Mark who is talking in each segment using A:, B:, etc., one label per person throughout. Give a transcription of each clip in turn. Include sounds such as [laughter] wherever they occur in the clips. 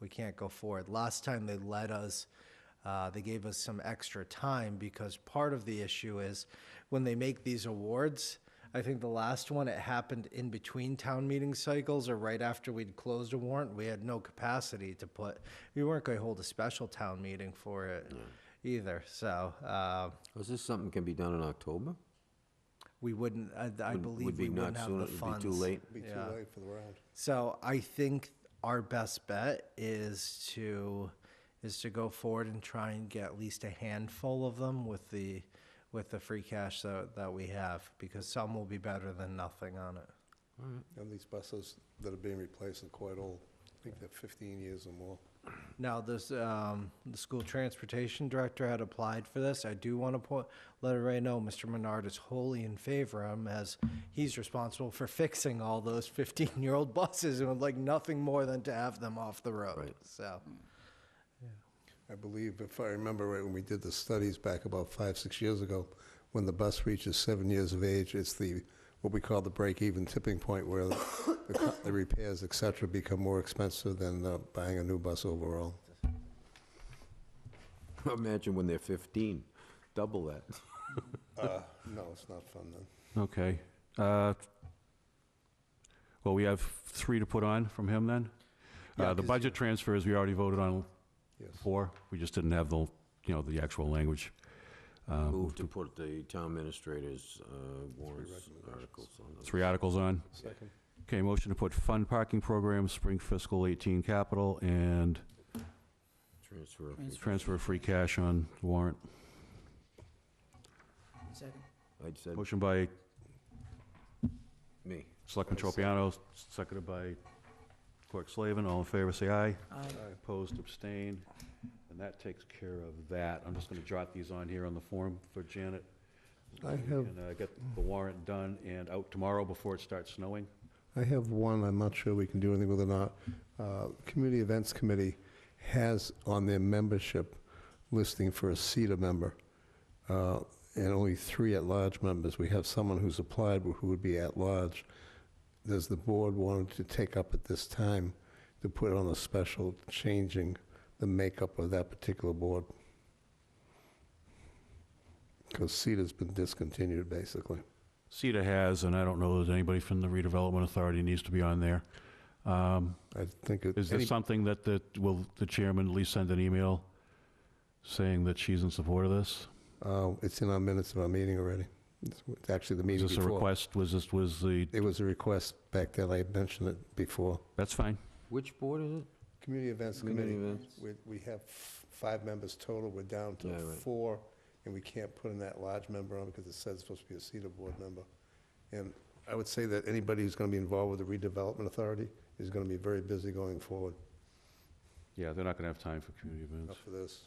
A: we can't go forward. Last time they let us, uh, they gave us some extra time because part of the issue is when they make these awards, I think the last one, it happened in between town meeting cycles or right after we'd closed a warrant. We had no capacity to put, we weren't going to hold a special town meeting for it either. So uh,
B: Is this something can be done in October?
A: we wouldn't, I- I
B: Would-
A: believe
B: would be
A: we wouldn't
B: not
A: have
B: soon,
A: the
B: it
A: funds.
B: would be too late. [laughs]
C: Be too
A: Yeah.
C: late for the round.
A: So I think our best bet is to is to go forward and try and get at least a handful of them with the with the free cash that that we have because some will be better than nothing on it.
C: And these buses that are being replaced are quite old. I think they're 15 years or more.
A: Now, this um, the school transportation director had applied for this. I do want to point let everybody know Mr. Menard is wholly in favor of him as he's responsible for fixing all those 15 year old buses and would like nothing more than to have them off the road.
B: Right.
A: So.
C: I believe, if I remember right, when we did the studies back about five, six years ago, when the bus reaches seven years of age, it's the, what we call the break-even tipping point where the the co- the repairs, et cetera, become more expensive than uh, buying a new bus overall.
B: Imagine when they're 15, double that.
C: Uh, No, it's not fun then.
D: Okay. Uh, Well, we have three to put on from him, then?
C: Yeah,
D: Uh, The
C: 'cause-
D: budget transfers, we already voted on
C: Yes.
D: four. We just didn't have the, you know, the actual language. Uh,
B: Move to put the town administrator's uh, warrants
C: recommendations.
B: articles on the...
D: Three articles on.
C: Second.
D: Okay, motion to put fund parking program, spring fiscal 18 capital, and
B: Transfer. of-
D: transfer of free cash on warrant.
E: Second.
B: I'd said
D: Motion by
B: me.
D: Selectman Tropiano, seconded by Clerk Slavin. All in favor, say aye.
E: Aye.
D: Opposed, abstained, and that takes care of that. I'm just going to jot these on here on the form for Janet.
C: I have-
D: And uh, get the warrant done and out tomorrow before it starts snowing.
C: I have one, I'm not sure we can do anything with it or not. Uh, Community Events Committee has on their membership listing for a CETA member, uh, and only three at-large members. We have someone who's applied who would be at-large. Does the board want to take up at this time to put on a special changing the makeup of that particular board? Because CETA's been discontinued, basically.
D: CETA has, and I don't know that anybody from the redevelopment authority needs to be on there. Um,
C: I think. it-
D: Is there
C: any-
D: something that, the will the chairman at least send an email saying that she's in support of this?
C: Uh, It's in our minutes of our meeting already. It's it's actually the
D: Is
C: meeting
D: this a
C: before.
D: request, was this, was the,
C: It was a request back then, I had mentioned it before.
D: that's fine.
B: Which board is it?
C: Community Events
B: Community
C: Committee,
B: events.
C: we, we have f- five members total, we're down to
B: Yeah, right.
C: four, and we can't put in that large member on because it says it's supposed to be a CETA board member. And I would say that anybody who's going to be involved with the redevelopment authority is going to be very busy going forward
D: Yeah, they're not going to have time for community events.
C: for this.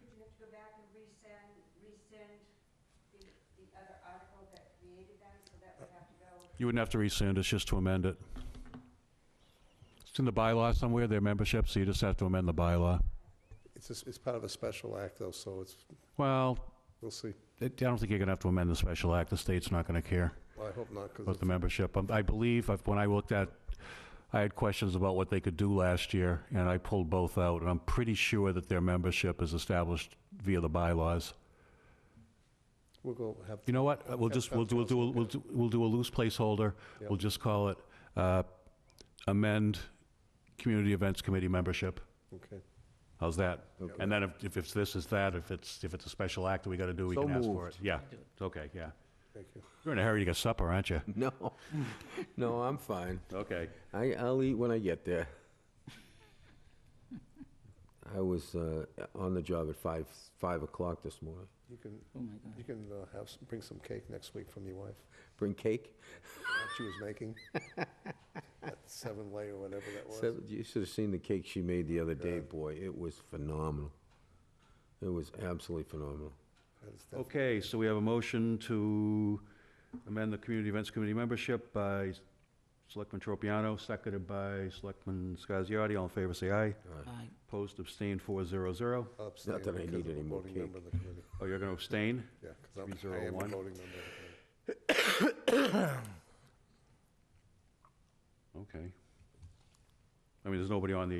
F: You have to go back and resend, resend the, the other article that created them, so that would have to go.
D: You wouldn't have to rescind, it's just to amend it. It's in the bylaw somewhere, their membership, so you just have to amend the bylaw.
C: It's, a s- it's part of a special act though, so it's,
D: Well,
C: we'll see.
D: I don't think you're going to have to amend the special act, the state's not going to care
C: Well, I hope not, because
D: about the membership. Um, I believe, I've- when I looked at, I had questions about what they could do last year, and I pulled both out, and I'm pretty sure that their membership is established via the bylaws.
C: we'll go have.
D: You know what, Uh, we'll just, we'll do, we'll do, we'll do- we'll do a loose placeholder, we'll just call it uh, amend Community Events Committee membership.
C: Okay.
D: How's that?
B: Okay.
D: And then if, if it's this, is that, if it's, if it's a special act that we gotta do, we
B: So
D: can ask for it.
B: moved.
D: Yeah, okay, yeah.
C: Thank you.
D: You're in a hurry to get supper, aren't you?
B: No, [laughs] no, I'm fine.
D: Okay.
B: I, I'll eat when I get
D: [laughs]
B: there. I was uh, on the job at five, five o'clock this morning.
C: You can,
E: Oh, my God.
C: you can uh, have, some- bring some cake next week from your wife,
B: Bring cake?
C: that she was
E: [laughs]
C: making. That seven layer, whatever that was.
B: Seven- You should have seen the cake she made the other day, boy. It was phenomenal. It was absolutely phenomenal.
C: That is def-
D: Okay, so we have a motion to amend the Community Events Committee membership by Selectman Tropiano, seconded by Selectman Scasiotti. All in favor, say aye.
E: Aye.
D: Opposed, abstained, four zero zero.
C: I'll abstain
B: that I
C: because
B: need
C: I'm a
B: any more
C: voting member of the committee.
D: Oh, you're gonna abstain?
C: Yeah, because I
D: Three,
C: am
D: zero,
C: a
D: one.
C: voting member. of the committee.
D: Okay. I mean, there's nobody on the